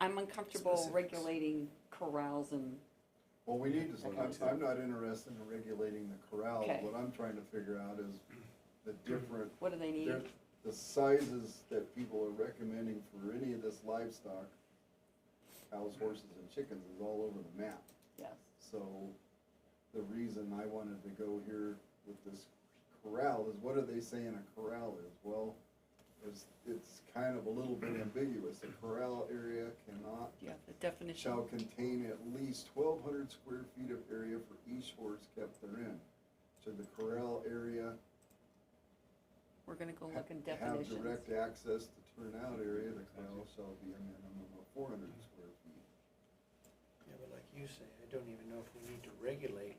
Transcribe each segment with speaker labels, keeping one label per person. Speaker 1: I'm uncomfortable
Speaker 2: Specifics.
Speaker 1: regulating corrals and,
Speaker 3: Well, we need to,
Speaker 4: Okay.
Speaker 3: I'm, I'm not interested in regulating the corral.
Speaker 1: Okay.
Speaker 3: What I'm trying to figure out is the different,
Speaker 1: what do they need?
Speaker 3: there- the sizes that people are recommending for any of this livestock, cows, horses, and chickens is all over the map.
Speaker 1: Yes,
Speaker 3: So the reason I wanted to go here with this corral is what are they saying a corral is? Well, it's, it's kind of a little bit ambiguous. A corral area cannot
Speaker 1: yeah, the definition.
Speaker 3: shall contain at least twelve hundred square feet of area for each horse kept therein. Should the corral area
Speaker 1: We're gonna go look in
Speaker 3: ha- have
Speaker 1: definitions.
Speaker 3: direct access to turnout area, the corral shall be a minimum of four hundred square feet.
Speaker 2: Yeah, but like you say, I don't even know if we need to regulate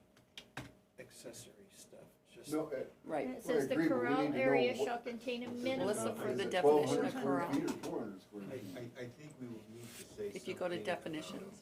Speaker 2: accessory stuff, just.
Speaker 3: No, eh,
Speaker 1: Right.
Speaker 5: And it
Speaker 3: Well, I
Speaker 5: says the
Speaker 3: agree, but we need
Speaker 5: corral
Speaker 3: to know
Speaker 5: area
Speaker 3: what-
Speaker 5: shall contain
Speaker 3: is
Speaker 5: a
Speaker 3: it-
Speaker 5: minimum.
Speaker 1: Melissa,
Speaker 3: is
Speaker 1: for the
Speaker 3: it
Speaker 1: definition
Speaker 3: 1,200
Speaker 1: of
Speaker 3: square
Speaker 1: corral.
Speaker 3: feet or Four hundred square
Speaker 4: I,
Speaker 3: feet.
Speaker 4: I, I think we will need to say something.
Speaker 1: If you go to
Speaker 4: about
Speaker 1: definitions,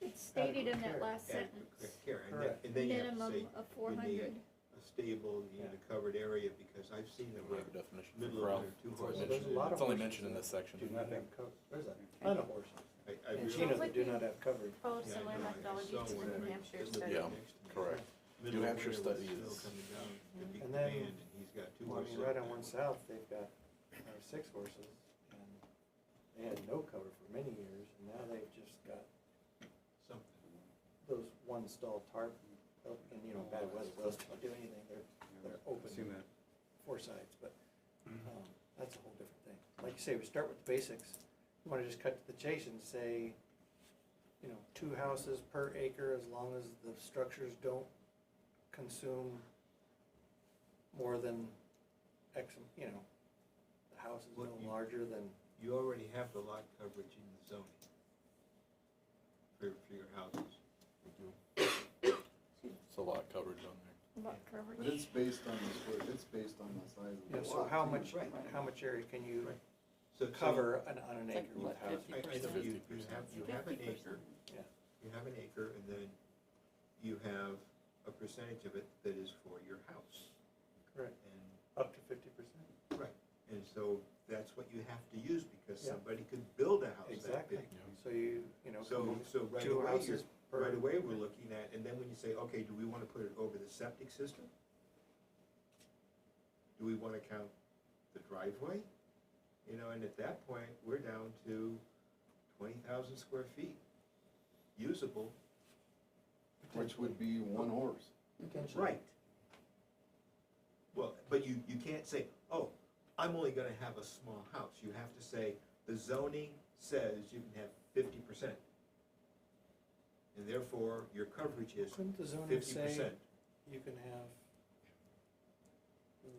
Speaker 5: It's stated in that
Speaker 2: Adequate
Speaker 5: last
Speaker 4: adequate
Speaker 5: sentence,
Speaker 4: Care, and then,
Speaker 2: Correct.
Speaker 4: and then you have to say
Speaker 5: minimum of four hundred.
Speaker 4: a stable, you need a covered area, because I've seen them
Speaker 6: We
Speaker 4: where
Speaker 6: have a definition for
Speaker 4: middle
Speaker 6: corral.
Speaker 4: of their two
Speaker 6: It's always
Speaker 2: horses. There's a
Speaker 6: mentioned
Speaker 2: lot
Speaker 6: in-
Speaker 2: of
Speaker 6: It's only
Speaker 2: horses
Speaker 6: mentioned in
Speaker 2: that
Speaker 6: this section.
Speaker 2: Do not have cover, where's that?
Speaker 1: I
Speaker 2: Ton of horses.
Speaker 4: I, I
Speaker 2: And
Speaker 4: realize.
Speaker 2: Chino, they
Speaker 7: Would
Speaker 2: do
Speaker 7: be-
Speaker 2: not have coverage.
Speaker 7: Oh,
Speaker 4: Yeah, I
Speaker 7: similar
Speaker 4: know, I
Speaker 7: methodology
Speaker 4: saw
Speaker 7: to
Speaker 4: one
Speaker 7: the
Speaker 4: where
Speaker 7: New
Speaker 4: it
Speaker 7: Hampshire
Speaker 4: was
Speaker 7: study.
Speaker 6: Yeah,
Speaker 4: next to me.
Speaker 6: correct.
Speaker 4: Middle
Speaker 6: New
Speaker 4: of
Speaker 6: Hampshire
Speaker 4: winter with
Speaker 6: study
Speaker 4: snow
Speaker 6: is-
Speaker 4: coming down, the big
Speaker 2: And then-
Speaker 4: band, and he's got two
Speaker 2: Well, I
Speaker 4: horses.
Speaker 2: mean, right on one south, they've got, uh, six horses, and they had no cover for many years, and now they've just got
Speaker 4: Something.
Speaker 2: those one stall tarp, and, and, you know, bad weather, those don't do anything, they're, they're open.
Speaker 4: Seen that.
Speaker 2: four sides, but um, that's a whole different thing. Like you say, we start with the basics. You want to just cut to the chase and say, you know, two houses per acre as long as the structures don't consume more than X, you know, the house is
Speaker 4: What you-
Speaker 2: no larger than,
Speaker 4: You already have the lot coverage in the zoning for, for your houses.
Speaker 6: It's a lot coverage on there.
Speaker 5: Lot
Speaker 3: But
Speaker 5: coverage.
Speaker 3: it's based on the square, it's based on the size of the
Speaker 2: you know, so
Speaker 3: lot.
Speaker 2: how
Speaker 3: too.
Speaker 2: much,
Speaker 4: Right.
Speaker 2: how much area can you
Speaker 4: Right. So- so
Speaker 2: cover on, on an
Speaker 1: It's like,
Speaker 2: acre with
Speaker 1: what,
Speaker 2: houses?
Speaker 4: I, I know
Speaker 1: 50%?
Speaker 4: you, you have, you have an
Speaker 1: 50%.
Speaker 4: acre,
Speaker 2: Yeah.
Speaker 4: you have an acre, and then you have a percentage of it that is for your house.
Speaker 2: Correct,
Speaker 4: And,
Speaker 2: up to fifty percent.
Speaker 4: right, and so that's what you have to use, because
Speaker 2: Yeah.
Speaker 4: somebody could build a house that
Speaker 2: Exactly.
Speaker 4: big.
Speaker 2: So you, you know, come
Speaker 4: So,
Speaker 2: up with
Speaker 4: so right
Speaker 2: two
Speaker 4: away, you're,
Speaker 2: houses per.
Speaker 4: right away, we're looking at, and then when you say, okay, do we wanna put it over the septic system? Do we wanna count the driveway? You know, and at that point, we're down to twenty thousand square feet usable.
Speaker 3: Which would be one horse.
Speaker 2: Potentially.
Speaker 4: Right. Well, but you, you can't say, oh, I'm only gonna have a small house, you have to say, the zoning says you can have fifty percent. And therefore, your coverage is
Speaker 2: Couldn't the zoning
Speaker 4: fifty
Speaker 2: say
Speaker 4: percent.
Speaker 2: you can have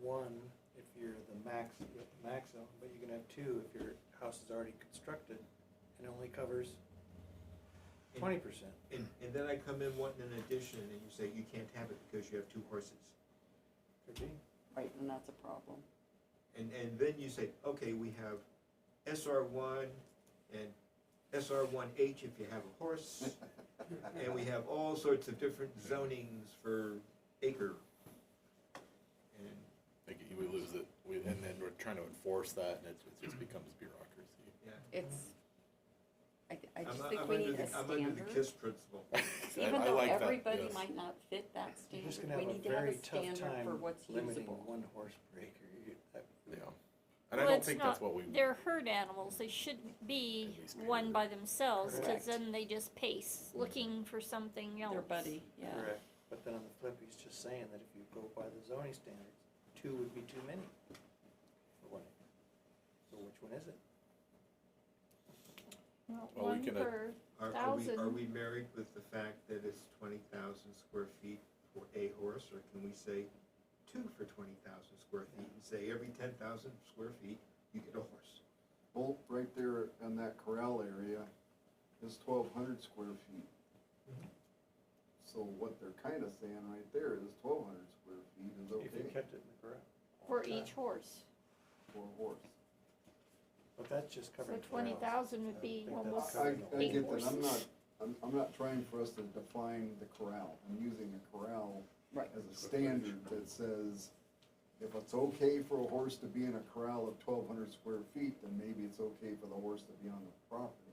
Speaker 2: one if you're the max, you're at the max zone, but you can have two if your house is already constructed and only covers twenty percent?
Speaker 4: And, and then I come in wanting an addition, and you say you can't have it because you have two horses.
Speaker 2: Could be.
Speaker 1: Right, and that's a problem.
Speaker 4: And, and then you say, okay, we have SR one and SR one H if you have a horse. And we have all sorts of different zonings for acre. And
Speaker 6: Like, we lose it, we, and then we're trying to enforce that, and it, it just becomes bureaucracy.
Speaker 1: It's, I, I
Speaker 4: I'm-
Speaker 1: just
Speaker 4: I'm
Speaker 1: think we
Speaker 4: under
Speaker 1: need
Speaker 4: the-
Speaker 1: a
Speaker 4: I'm under the
Speaker 1: standard.
Speaker 4: KISS principle.
Speaker 6: I-
Speaker 1: Even
Speaker 6: I
Speaker 1: though
Speaker 6: like that,
Speaker 1: everybody
Speaker 6: yes.
Speaker 1: might not fit that
Speaker 2: You're just
Speaker 1: standard,
Speaker 2: gonna have
Speaker 1: we
Speaker 2: a
Speaker 1: need to have
Speaker 2: very
Speaker 1: a
Speaker 2: tough
Speaker 1: standard for
Speaker 2: time
Speaker 1: what's
Speaker 2: limiting
Speaker 1: usable.
Speaker 2: one horse per acre. You- that-
Speaker 6: Yeah. And I
Speaker 5: Well,
Speaker 6: don't
Speaker 5: it's
Speaker 6: think that's
Speaker 5: not-
Speaker 6: what we,
Speaker 5: They're herd animals, they shouldn't be
Speaker 6: At least
Speaker 5: one
Speaker 6: paired.
Speaker 5: by themselves,
Speaker 1: Correct.
Speaker 5: cause then they just pace, looking for something else.
Speaker 1: Their buddy, yeah.
Speaker 2: Correct, but then on the flip, he's just saying that if you go by the zoning standards, two would be too many for one acre. So which one is it?
Speaker 5: Well,
Speaker 6: Well, we
Speaker 5: One
Speaker 6: can, uh,
Speaker 5: per,
Speaker 4: Are, are we, are
Speaker 5: Thousand.
Speaker 4: we married with the fact that it's twenty thousand square feet for a horse, or can we say two for twenty thousand square feet? And say every ten thousand square feet, you get a horse.
Speaker 3: Well, right there in that corral area is twelve hundred square feet. So what they're kinda saying right there is twelve hundred square feet is
Speaker 2: If you
Speaker 3: okay
Speaker 2: kept it in the corral.
Speaker 5: for each horse,
Speaker 3: for a horse.
Speaker 2: But that's just
Speaker 5: so
Speaker 2: covering.
Speaker 5: twenty
Speaker 2: corrals.
Speaker 5: thousand would be
Speaker 2: I think
Speaker 5: almost
Speaker 2: that's
Speaker 3: I,
Speaker 2: correct.
Speaker 3: I
Speaker 5: eight
Speaker 3: get that, I'm not,
Speaker 5: horses.
Speaker 3: I'm, I'm not trying for us to define the corral, I'm using a corral
Speaker 1: Right.
Speaker 3: as a standard that says, if it's okay for a horse to be in a corral of twelve hundred square feet, then maybe it's okay for the horse to be on the property.